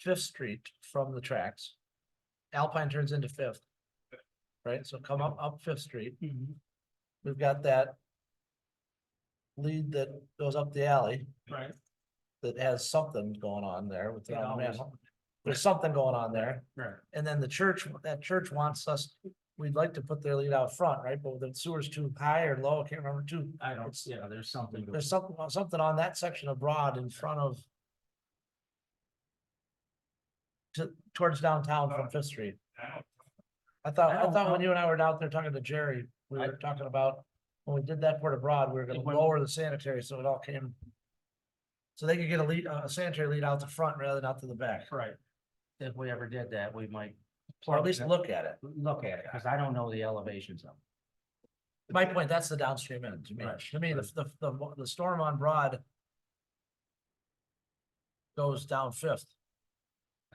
Fifth Street from the tracks. Alpine turns into Fifth. Right, so come up, up Fifth Street, Mm-hmm. we've got that. Lead that goes up the alley Right. that has something going on there with the Yeah, always. manhole. There's something going on there, Right. and then the church, that church wants us, we'd like to put their lead out front, right, but the sewer's too high or low, I can't remember too. I don't, yeah, there's something. to- There's something, something on that section of Broad in front of. To, towards downtown from Fifth Street. I thought, I I don't thought when know. you and I were out there talking to Jerry, we I- were talking about, when we did that port of Broad, we were gonna It went- lower the sanitary, so it all came. So they could get a lead, a sanitary lead out the front rather than out to the back, Right. If we ever did that, we might. or at least plug look at it. that- Look at it, because I don't know the elevations of. it. My point, that's the downstream end to me. Right, To me, the, the, the, the storm on Broad. Goes down Fifth,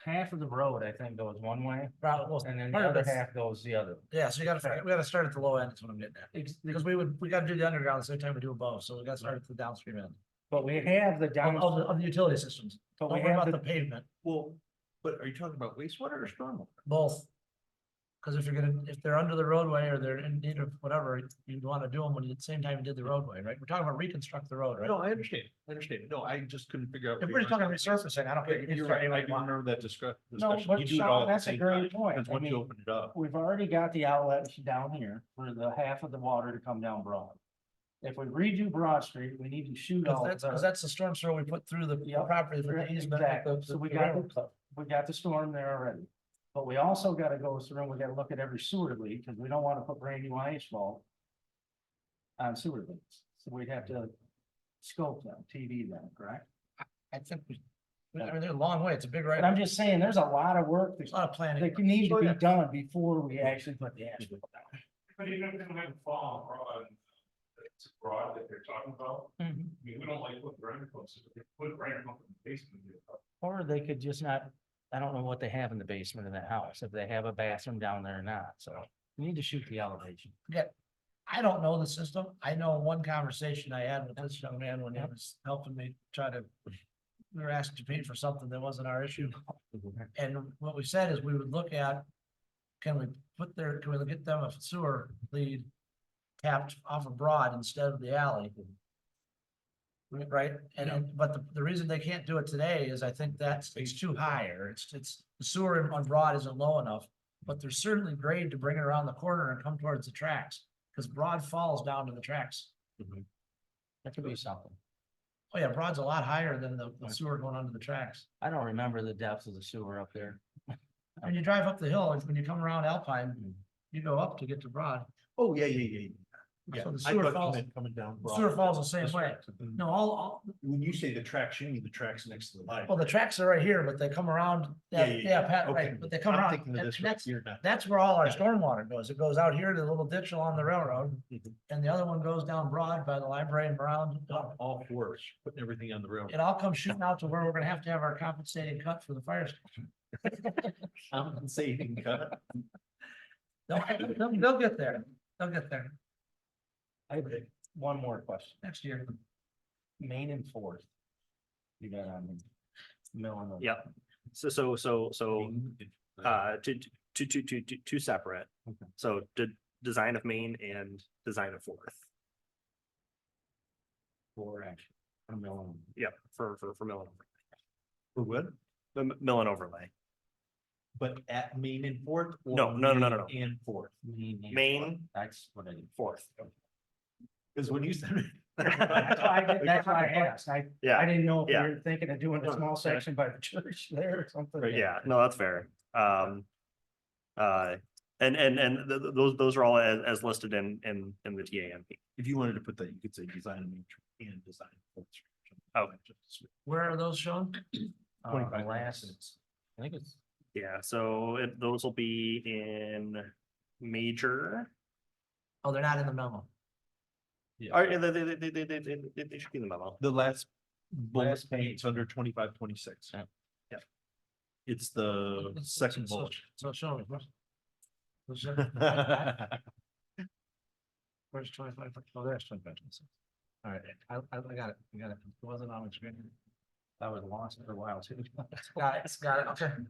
Half of the road, I think, goes one way, Broad, well, and then the part of other it's- half goes the other. Yeah, so you gotta, figure- we gotta start at the low end, is what I'm getting at, Ex- because we would, we gotta do the underground the same time we do above, so we gotta start at the downstream end. But we have the Of, down, of the, of the utility systems, but we don't worry have about the the, pavement, Well, but are you talking about wastewater or stormwater? both. Cause if you're gonna, if they're under the roadway or they're in need of whatever, you'd wanna do them when you, at the same time you did the roadway, right? We're talking about reconstruct the road, right? No, I understand, I understand. No, I just couldn't figure out. If what we're you just were- talking resurfacing, I don't Yeah, care. You're right, I do remember that discuss. no, discussion. You but do it all Sean, at the that's a same time, great point. Because I once mean, you open it up, We've already got the outlets down here for the half of the water to come down Broad. If we redo Broad Street, we need to shoot Cause all uh, that's, of cause it. that's the storm sewer we put through the Yep, property for right, the easement. like exactly. the- So the we got- railroad club. We got the storm there already. But we also gotta go through and we gotta look at every sewer leak, because we don't wanna put brand new asphalt on sewer leaks. So we'd have to scope them, TV them, correct? I think we, I mean, they're a long way, it's a big right, But I'm just saying, there's a lot of work that's a lot of planning. That can need to Oh, be yeah. done before we actually put the asphalt down. But even if they don't have a fall on broad, it's broad that they're talking about, Mm-hmm. I Mhm. mean, we don't like putting granite pumps, if they put granite pump in the basement. it'd be a problem. Or they could just not, I don't know what they have in the basement of that house, if they have a bathroom down there or not, so you need to shoot the elevation. I don't know the system. I know one conversation I had with this young man when he was helping me try to. We were asked to pay for something that wasn't our issue, Mm-hmm. and what we said is we would look at. Can we put their, can we get them a sewer lead tapped off of Broad instead of the alley? Right, and, and- but the, the reason they can't do it today is I think that's, it's too high, or it's, it's, the sewer on Broad isn't low enough. But there's certainly grade to bring it around the corner and come towards the tracks. Cause Broad falls down to the tracks. That could be something. Oh yeah, Broad's a lot higher than the the sewer going under the tracks. I don't remember the depth of the sewer up there. When you drive up the hill, and when you come around Alpine, Mm. Mhm. you go up to get to Broad. oh, yeah, yeah, yeah, yeah. yeah. So the I sewer thought you falls- meant Coming down. The broad. Sewer falls the same That's way. right. Mm-hmm. No, all, all, When you say the tracks, you mean the tracks next to the line. well, the tracks are right here, but they come around, yeah, Yeah, yeah, yeah, Pat, Okay. right, but they come I'm around. thinking of and this one. That's, You're not. that's where all our Got it. stormwater goes. It goes out here to the little ditch along the railroad. Mhm. And the other one goes down Broad by the library and around. Not All fours, putting everything on the railroad. It all comes shooting out to where we're gonna have to have our compensating cut for the fire. station. I'm saving cut. They'll, they'll, they'll get there. They'll get there I have one more question, next year. main and fourth. You got on Millen. and- Yep. So, so, so, so, uh, two, two, two, two, two, two separate. Okay. So de- design of main and design of fourth. Four actually. on Millen. Yep, for, for, for mill and overlay. For what? The m- mill and overlay. But at Main and Fourth? or No, no, no, no, no, Main And Fourth, Main. and fourth. Main, That's what I did. fourth. because when you said. That's why I did- that's why I asked. I, I Yeah, didn't know if Yeah. you were thinking of doing a No, small yeah. section by the church there or something. yeah, no, that's fair. Um, uh, and, and, and th- th- those, those are all as, as listed in, in, in the TAMP. If you wanted to put that, you could say design and nature and design. culture. Oh. Where are those shown? Uh, 25 last- minutes. I think it's, Yeah, so it, those will be in major, Oh, they're not in the memo. or they, they, they, they, they, they, they should be in the memo. The last bullet, Last page. it's under twenty-five, twenty-six. Yeah. Yep. It's the It's- second it's- bullet. So show me. where's- where's the- That's Where's twenty-five? Oh, there's twenty-five. All right, I, I I got it, I got it. It wasn't on the screen. I was lost for a while too. Got it, got it, okay.